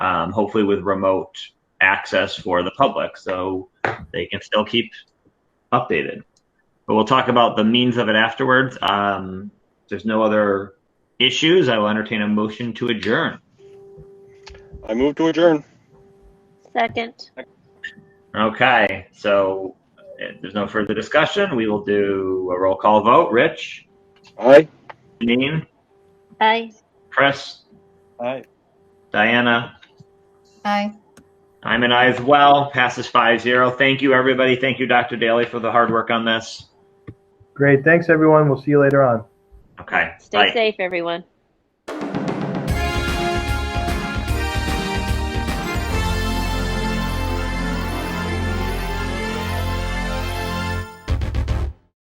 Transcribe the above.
um, hopefully with remote access for the public so they can still keep updated. But we'll talk about the means of it afterwards. Um, if there's no other issues. I will entertain a motion to adjourn. I move to adjourn. Second. Okay, so if there's no further discussion, we will do a roll call vote. Rich, Aye. Janine, Aye. Chris, Aye. Diana, Aye. I'm an I as well. Passes 5 0. Thank you, everybody. Thank you, Dr. Daly, for the hard work on this. Great. Thanks, everyone. We'll see you later on. Okay. Stay safe, everyone.